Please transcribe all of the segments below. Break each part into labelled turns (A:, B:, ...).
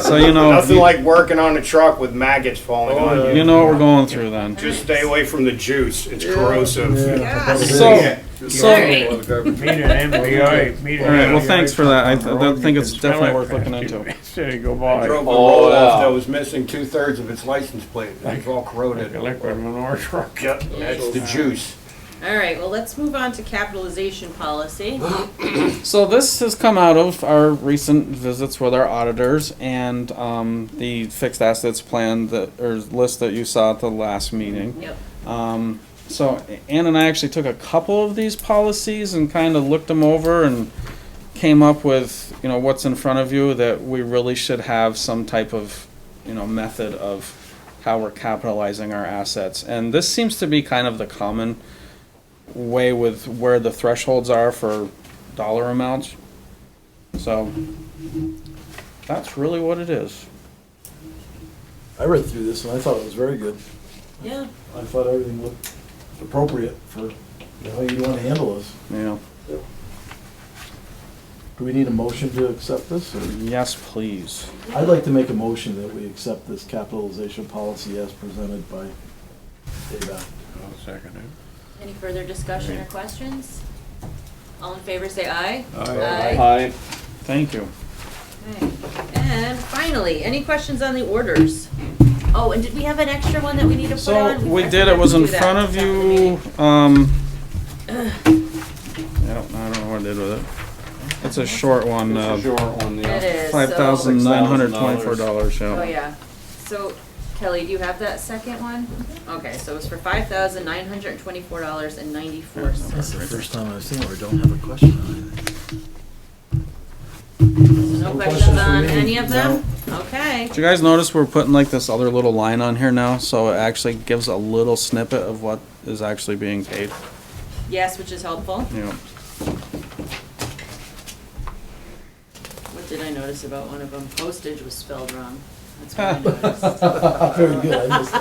A: So you know,
B: Nothing like Oh, uh, working on a truck with maggots falling on you.
A: you know what we're going through then.
B: Just stay away from the juice. It's corrosive.
A: So, so, all
C: Alright.
D: Meet an
B: Be all right,
D: MBA. Meet an
A: right. Well,
D: MBA.
A: thanks for that. I, I think it's
D: Smell
A: definitely
D: it.
A: worth looking into.
D: Instead of go buy
B: Drove a roll off that was missing two thirds of its license plate. It was all corroded.
D: a liquid manure truck.
B: Yep, that's the juice.
C: All right, well, let's move on to capitalization policy.
A: So this has come out of our recent visits with our auditors and um, the fixed assets plan that or list that you saw at the last meeting.
C: Yep.
A: Um, so Ann and I actually took a couple of these policies and kind of looked them over and came up with you know what's in front of you that we really should have some type of you know method of how we're capitalizing our assets and this seems to be kind of the common way with where the thresholds are for dollar amounts so that's really what it is
E: I read through this and I thought it was very good.
C: Yeah.
E: I thought everything looked appropriate for how you want to handle this.
A: you know
E: Do we need a motion to accept this? or-
A: yes please
E: I'd like to make a motion that we accept this capitalization policy as presented by Dave Allen.
D: Second.
C: Any further discussion or questions? All in favor, say aye.
F: Aye.
A: thank you
C: Okay. And finally, any questions on the orders? Oh, and did we have an extra one that we need to put
A: So,
C: on?
A: we
C: I
A: did,
C: forgot
A: it was
C: to
A: in
C: do that
A: front of
C: after the meeting.
A: you, um, I don't, I don't know what I did with it. It's a short one,
F: It's a
A: uh,
F: short one,
C: It
F: yeah.
C: is. so-
A: five thousand nine hundred twenty-four dollars,
C: Oh,
A: yeah.
C: yeah. So Kelly, do you have that second one?
A: Mm-hmm.
C: Okay, so it was for five thousand nine hundred and twenty-four dollars and ninety-four
E: That's the
C: cents.
E: first time I've seen it, or don't have a question on it.
C: No questions
E: questions for
C: on
E: me.
C: any of them? Okay.
A: Did you guys notice we're putting like this other little line on here now, so it actually gives a little snippet of what is actually being paid,
C: Yes, which is helpful.
A: you know.
C: What did I notice about one of them? Postage was spelled wrong. That's what I noticed.
E: Very good, I missed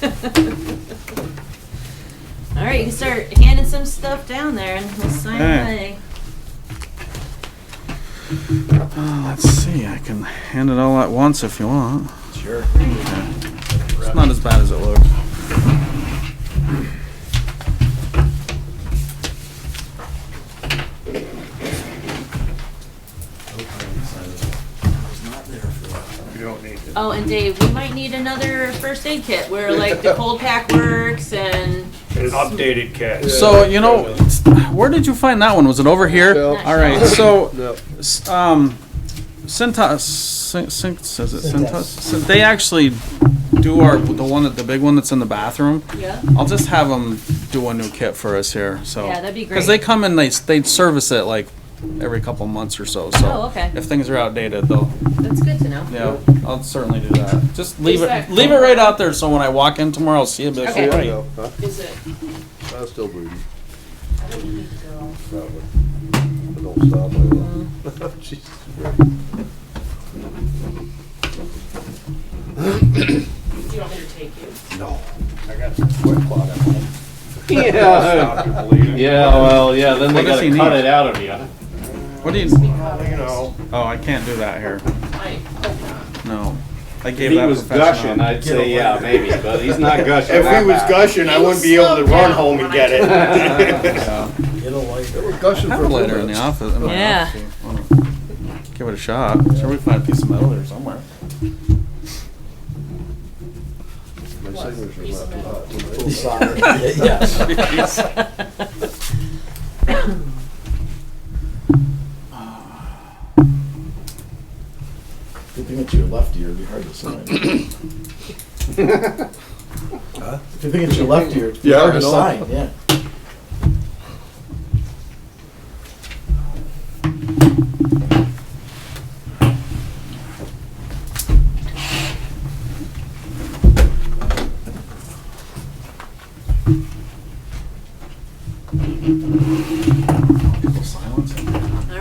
E: that.
C: All right, you can start handing some stuff down there and we'll sign
A: Okay.
C: away.
A: Uh, Let's see, I can hand it all at once if you want.
E: Sure.
A: It's not as bad as it looks.
E: Nope, I didn't sign this one. I was not there for that.
D: You don't need it.
C: Oh, and Dave, we might need another first aid kit where like the cold pack works and
B: An updated cat.
A: So you know, where did you find that one? Was it over here?
F: No.
A: All right. So,
F: No.
A: s- um, Cintas, Cin- Cin- says it Cintas. So they actually do our the one that the big one that's in the bathroom.
C: yeah.
A: I'll just have them do a new kit for us here. So
C: Yeah, that'd be
A: Because they
C: great.
A: come and they s- they service it like every couple months or so. So
C: Oh, okay.
A: if things are outdated, they'll
C: That's good to know.
A: yeah, I'll certainly do that. Just leave
C: Is
A: it
C: that-
A: leave it right out there so when I walk in tomorrow, I'll see it. but it's
C: Okay.
A: already-
C: Is it?
F: I'm still bleeding.
C: I don't need to go.
F: Don't stop. I will.
C: Uh-huh.
F: Jesus Christ.
C: You want me to take you?
B: I got some sweat clot at home.
F: Yeah,
B: Stop you bleeding.
F: yeah, well, yeah, then they
A: What does
F: gotta
A: he
F: cut
A: need?
F: it out of you.
A: What do you?
B: You know,
A: Oh, I can't do that here.
C: I hope not.
A: No. I gave
F: If he
A: that
F: was
A: professional-
F: gushing, I'd say, yeah, maybe, but he's not gushing.
B: if he was
F: that bad.
B: gushing, I wouldn't be able to run home and get it.
A: Yeah.
E: Get a light.
A: I have it later in the office. in my
C: Yeah.
A: office. Why not? Give it a shot. Sure, we find a piece of metal there somewhere.
E: Yes. Good thing it's your left ear, it'd be hard to sign. If you think it's your left ear, it'd be
F: Yeah,
E: hard
F: I
E: to
F: know.
E: sign, yeah.
C: All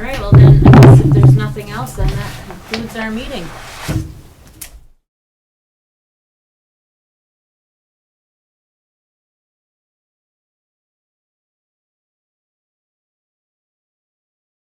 C: right, well then, I guess if there's nothing else, then that concludes our meeting.